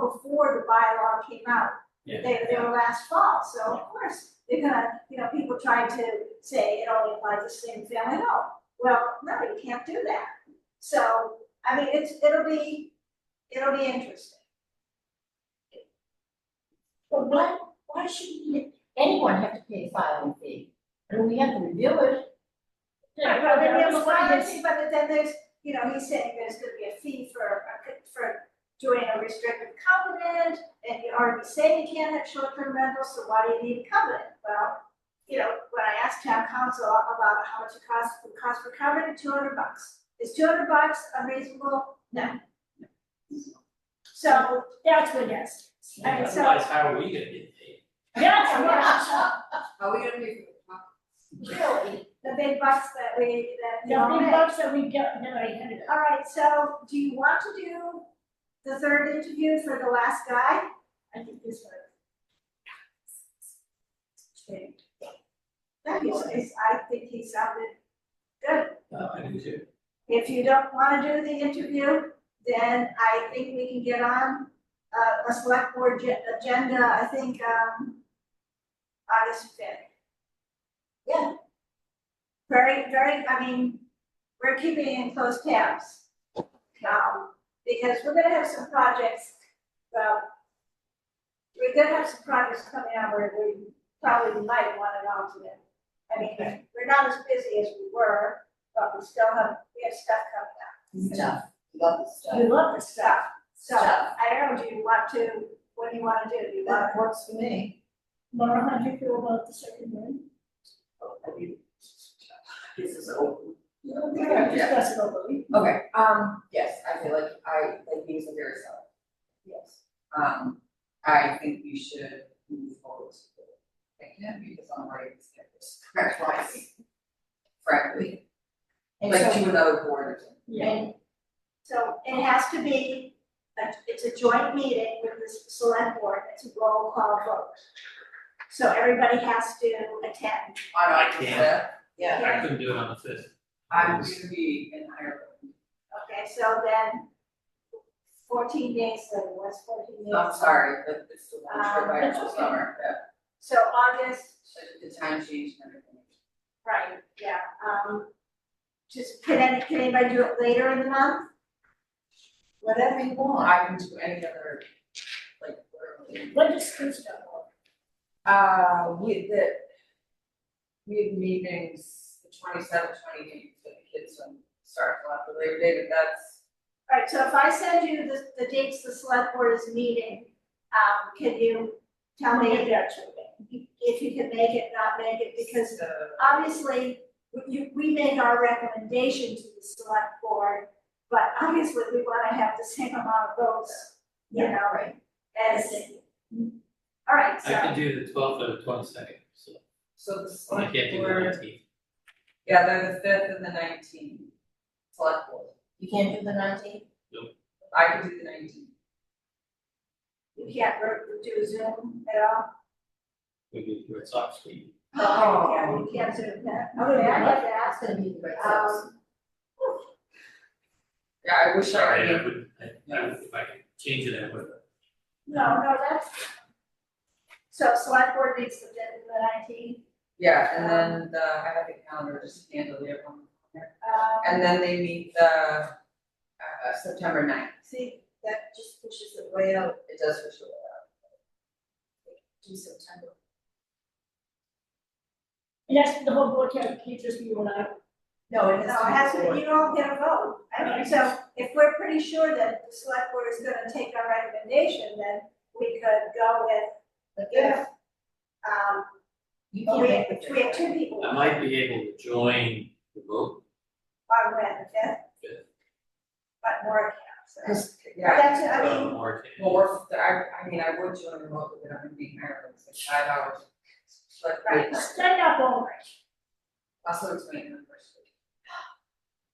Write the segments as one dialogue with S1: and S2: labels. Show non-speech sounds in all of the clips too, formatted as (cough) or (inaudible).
S1: before the bylaw came out.
S2: Yeah.
S1: They, they were last fall, so of course, they're gonna, you know, people try to say it only applies to single family, no. Well, no, you can't do that. So, I mean, it's, it'll be, it'll be interesting.
S3: But why, why should we- anyone have to pay a filing fee? And we have to review it.
S1: Right, well, then there's privacy, but then there's, you know, he's saying there's gonna be a fee for, a co- for doing a restrictive covenant, and you already say you can't have short-term rentals, so why do you need a covenant? Well, you know, when I asked town council about how much it costs, it costs for covenant, two hundred bucks. Is two hundred bucks unreasonable? No. So,
S4: That's what that's,
S1: I mean, so-
S2: Otherwise, how are we gonna get paid?
S4: that's what,
S5: Are we gonna pay for
S3: Really?
S1: the big bucks that we, that we
S4: the
S1: all
S4: big
S1: make.
S4: bucks that we get, that I had.
S1: All right, so do you want to do the third interview for the last guy?
S4: I think this one.
S1: That is, is, I think he sounded good.
S2: Uh, I do too.
S1: If you don't wanna do the interview, then I think we can get on, uh, a select board ge- agenda, I think, um, August fifth. Yeah. Very, very, I mean, we're keeping in close tabs now, because we're gonna have some projects, well, we're gonna have some projects coming out where we probably might want an alternate. I mean, we're not as busy as we were, but we still have, we have stuff coming up,
S3: Stuff, love the stuff.
S4: We love this stuff.
S1: stuff. So
S3: Stuff.
S1: I don't know, do you want to, what do you wanna do? Do you want,
S3: That works for me.
S4: Laura, how do you feel about the second one?
S5: Oh, I mean, this is over.
S4: We're gonna discuss it over. We-
S5: Okay, um, yes, I feel like I, like these are very solid. Yes. Um, I think we should move forward. Again, because I'm ready to get this correctly. Frankly,
S3: And
S5: like
S3: so,
S5: to another board.
S4: Yeah,
S1: so it has to be, a- it's a joint meeting with the select board, it's a roll call vote. So everybody has to attend.
S5: On
S2: I
S5: August
S2: can't.
S5: fifth,
S3: yeah,
S2: I couldn't do it on the fifth.
S5: I'm gonna be in Ireland.
S1: Okay, so then fourteen days later, what's fourteen days?
S5: I'm sorry, but it's the one
S3: Ah.
S5: trip I
S4: Um,
S5: took
S4: that's
S5: summer, yeah,
S1: So August,
S5: so the time change and everything.
S1: right, yeah, um, just, can any, can anybody do it later in the month?
S3: whatever you want.
S5: I can do any other, like, whatever.
S4: what does Krista want?
S5: Uh, we, the, we have meetings, the twenty-seventh, twenty-eighth, for the kids don't start till after Labor Day, but that's,
S1: Alright, so if I send you the, the dates the select board is meeting, um, can you tell me
S4: Maybe
S1: if
S4: that's okay.
S1: you can make it, not make it, because
S5: the,
S1: obviously, we- you, we make our recommendation to the select board, but obviously, we wanna have the same amount of votes, you
S4: Yeah,
S1: know, as. Alright,
S2: I
S1: so,
S2: can do the twelfth or the twenty-second, so,
S5: so the
S2: and Oh, I
S5: select
S2: can't do the
S5: board,
S2: nineteenth.
S5: yeah, they're the fifth and the nineteenth, select board,
S3: You can't do the nineteenth?
S5: I can do the nineteenth.
S1: you can't re- do Zoom at all?
S2: We do through a soft screen.
S5: Oh.
S1: Yeah, you can't Zoom that, okay, I get that,
S3: That's gonna be the great house.
S1: um,
S5: Yeah, I wish I
S2: Sorry, I
S5: could,
S2: would, I, I would, if I could change it, I would.
S1: no, no, that's. So select board meets the, the nineteenth,
S5: yeah, and then the, I have the calendar, just handle the everyone.
S1: um.
S5: And then they meet the, uh, September ninth,
S3: See, that just pushes it way out
S5: it does for sure.
S3: to September.
S4: And that's the whole board, can't, can't just be you and I.
S3: No, it
S1: No, it has
S3: has to be.
S1: to,
S3: before.
S1: you don't get a vote. I mean, so if we're pretty sure that the select board is gonna take our recommendation, then we could go with,
S3: But
S1: if, um,
S3: You
S1: but
S3: can't
S1: we,
S3: make
S1: have-
S3: it.
S1: we have two people
S2: I
S1: on
S2: might be able to join the vote.
S1: when, the fifth.
S2: Fifth.
S1: But more counts, so.
S5: This-
S1: But
S5: Yeah,
S1: that's, I
S2: uh,
S1: mean,
S2: Or can.
S5: Well, we're, I, I mean, I would join remotely, but I'm gonna be in Ireland, it's like five hours. But
S1: Right.
S4: Stand up all right.
S5: also it's my anniversary.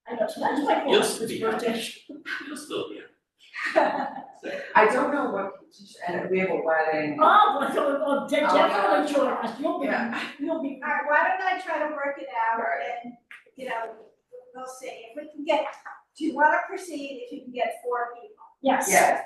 S4: I know, so that's my
S2: You'll
S4: fault,
S2: still
S4: this
S2: be
S4: birthday.
S2: You'll still be.
S1: (laughs)
S5: I don't know what, and we have a wedding.
S4: Oh, well, so, oh, de-
S5: Oh, yeah.
S4: definitely join us, you'll be,
S5: Yeah.
S4: you'll be.
S1: alright, why don't I try to work it out
S5: Right.
S1: and, you know, we'll see. If we can get, do you wanna proceed if you can get four people?
S4: Yes.
S5: Yeah,